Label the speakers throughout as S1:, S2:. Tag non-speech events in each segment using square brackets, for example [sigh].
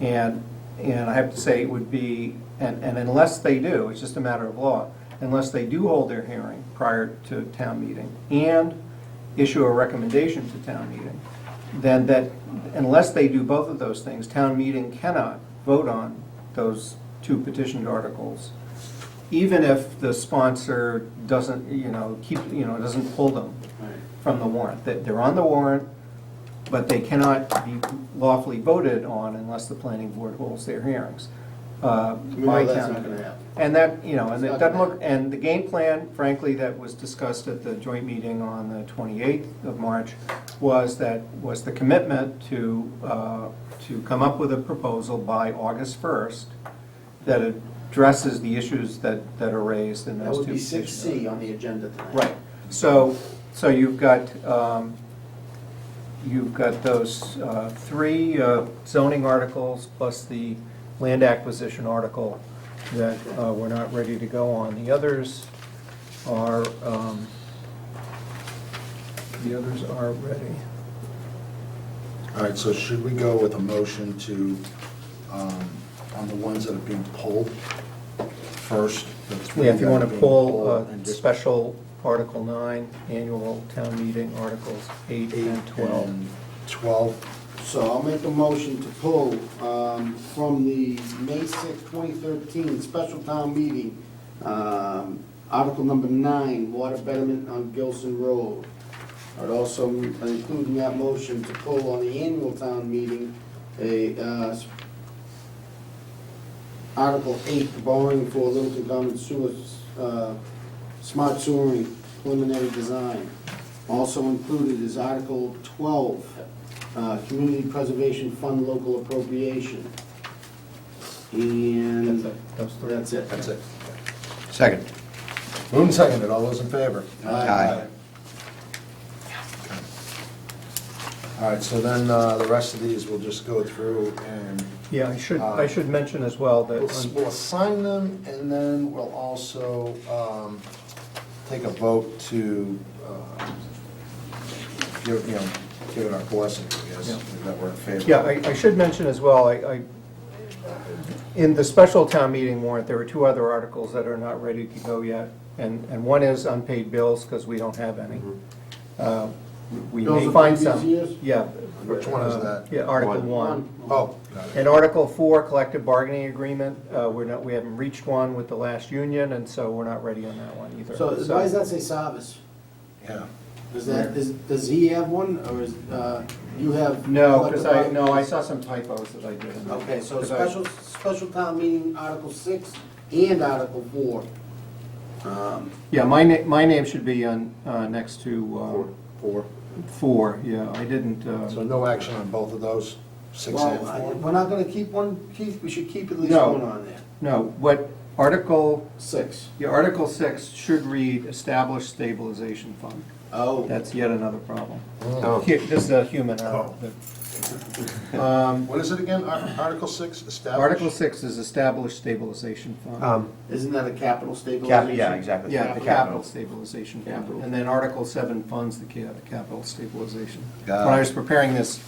S1: And, and I have to say, it would be, and, and unless they do, it's just a matter of law, unless they do hold their hearing prior to town meeting and issue a recommendation to town meeting, then that, unless they do both of those things, town meeting cannot vote on those two petitioned articles, even if the sponsor doesn't, you know, keep, you know, doesn't pull them from the warrant. That They're on the warrant, but they cannot be lawfully voted on unless the planning board holds their hearings. uh,
S2: We
S1: by
S2: know that's
S1: town
S2: not gonna
S1: meeting.
S2: happen.
S1: And that, you know, and
S2: It's
S1: it
S2: not
S1: doesn't
S2: gonna
S1: look, and the game plan, frankly, that was discussed at the joint meeting on the 28th of March was that, was the commitment to, uh, to come up with a proposal by August 1st that addresses the issues that, that are raised in
S2: That
S1: those two.
S2: would be six
S1: petitions.
S2: C on the agenda tonight.
S1: Right, so, so you've got, um, you've got those uh, three uh, zoning articles plus the land acquisition article that uh, we're not ready to go on. The others are, um, the others are ready.
S3: All right, so should we go with a motion to, um, on the ones that are being pulled first? the three
S1: Yeah, if you
S3: that
S1: want
S3: are
S1: to
S3: being
S1: pull
S3: pulled,
S1: uh,
S3: and just
S1: special Article 9, annual town meeting articles 8
S3: Eight
S1: and 12.
S3: and Twelve,
S2: So I'll make a motion to pull um, from the May sixth, 2013 special town meeting, um, Article Number 9, water betterment on Gilson Road. I'd also include in that motion to pull on the annual town meeting, a, uh, s- Article 8, borrowing for Littleton Common Sewer, uh, smart sewering preliminary design. Also included is Article 12, uh, Community Preservation Fund Local Appropriation. And
S1: That's it, those three.
S2: that's it.
S3: that's it.
S4: Second.
S3: Moved and seconded, all those in favor?
S4: Aye.
S3: Okay. All right, so then uh, the rest of these we'll just go through and
S1: Yeah, I should, I should mention as well that.
S3: Uh, We'll
S1: on-
S3: we'll assign them, and then we'll also um, take a vote to, uh, give, you know, give it our blessing, I
S1: Yeah.
S3: guess, that we're in favor.
S1: Yeah, I, I should mention as well, I, I, in the special town meeting warrant, there are two other articles that are not ready to go yet. And, and one is unpaid bills, because we don't have any.
S2: Mm-hmm.
S1: Uh, We
S2: Bills
S1: may
S2: of
S1: find
S2: previous
S1: some.
S2: years?
S1: Yeah. Uh,
S3: Which one is that?
S1: Yeah, Article one.
S3: Oh, got it.
S1: And Article four, collective bargaining agreement, uh, we're not, we haven't reached one with the last union, and so we're not ready on that one either.
S2: So why does that say Savas?
S3: yeah.
S2: Is that, is, does he have one, or is, uh, you have?
S1: No, because I, no, I saw some typos that I did. in there.
S2: Okay, so
S1: 'Cause I-
S2: special, special town meeting, Article six and Article four. Um,
S1: Yeah, my na, my name should be on, uh, next to, uh,
S3: Four.
S1: Four, yeah, I didn't,
S3: So
S1: uh,
S3: no action on both of those, six and
S2: Well, I-
S3: four?
S2: we're not gonna keep one, Keith, we should keep at least
S1: No.
S2: one on there.
S1: no, what Article,
S2: Six.
S1: yeah, Article 6 should read Establish Stabilization Fund.
S2: Oh.
S1: That's yet another problem.
S3: Oh.
S1: Hu- This is a human error. Um,
S3: What is it again, Ar- Article six, establish?
S1: Article 6 is Establish Stabilization Fund.
S4: Um,
S2: Isn't that a capital
S4: cap,
S2: stabilization?
S4: yeah, exactly.
S1: Yeah,
S4: The
S1: Capital
S4: capital.
S1: Stabilization Fund.
S2: Capital.
S1: And then Article 7 funds the ca- Capital Stabilization. When
S4: Got it.
S1: I was preparing this,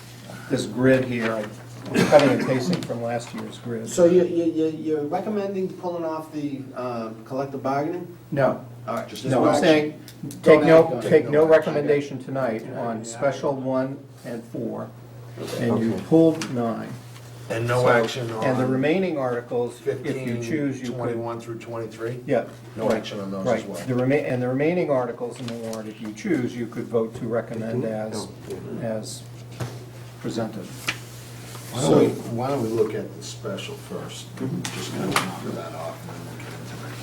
S1: this grid here, I was cutting and pasting from last year's grid.
S2: So you, you, you- you're recommending pulling off the, uh, collective bargaining?
S1: No,
S2: All right,
S3: Just
S1: No,
S3: no
S1: I'm
S3: action.
S1: saying, take
S2: act
S1: no,
S2: on it.
S1: take no
S3: Okay.
S1: recommendation tonight on special one and four, and you pulled nine.
S3: And no
S1: So-
S3: action
S1: And the
S3: on
S1: remaining articles, if you choose,
S3: fifteen,
S1: you could.
S3: twenty-one through twenty-three?
S1: Yeah.
S3: No
S1: right,
S3: action on those as
S1: Right,
S3: well.
S1: the remain, and the remaining articles in the warrant, if you choose, you could vote to recommend as, as presented.
S3: Why don't we, why don't we look at the special first?
S1: Mm-hmm.
S3: Just kind of knock that off and then we'll get into that.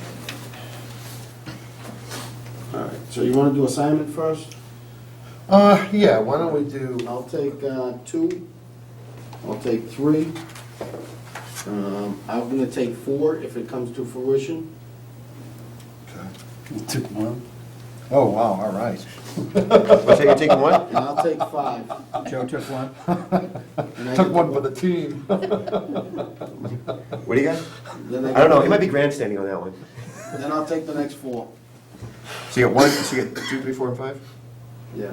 S2: All right, so you wanna do assignment first?
S3: Uh, yeah, why don't we do,
S2: I'll take uh, two, I'll take three, Um, I'm gonna take four if it comes to fruition.
S3: okay. oh, wow, all right.
S4: What's that, you're taking one?
S2: And I'll take
S4: [laughs]
S2: five.
S1: Joe took one?
S2: And I
S3: Took
S2: get-
S3: one for the team.
S4: What do you got?
S2: then
S4: I don't know,
S2: get-
S4: it might be grandstanding on that one.
S2: Then I'll take the next four.
S4: So you got one, so you got two, three, four, and five?
S2: Yeah.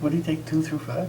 S5: What do you take, two through five?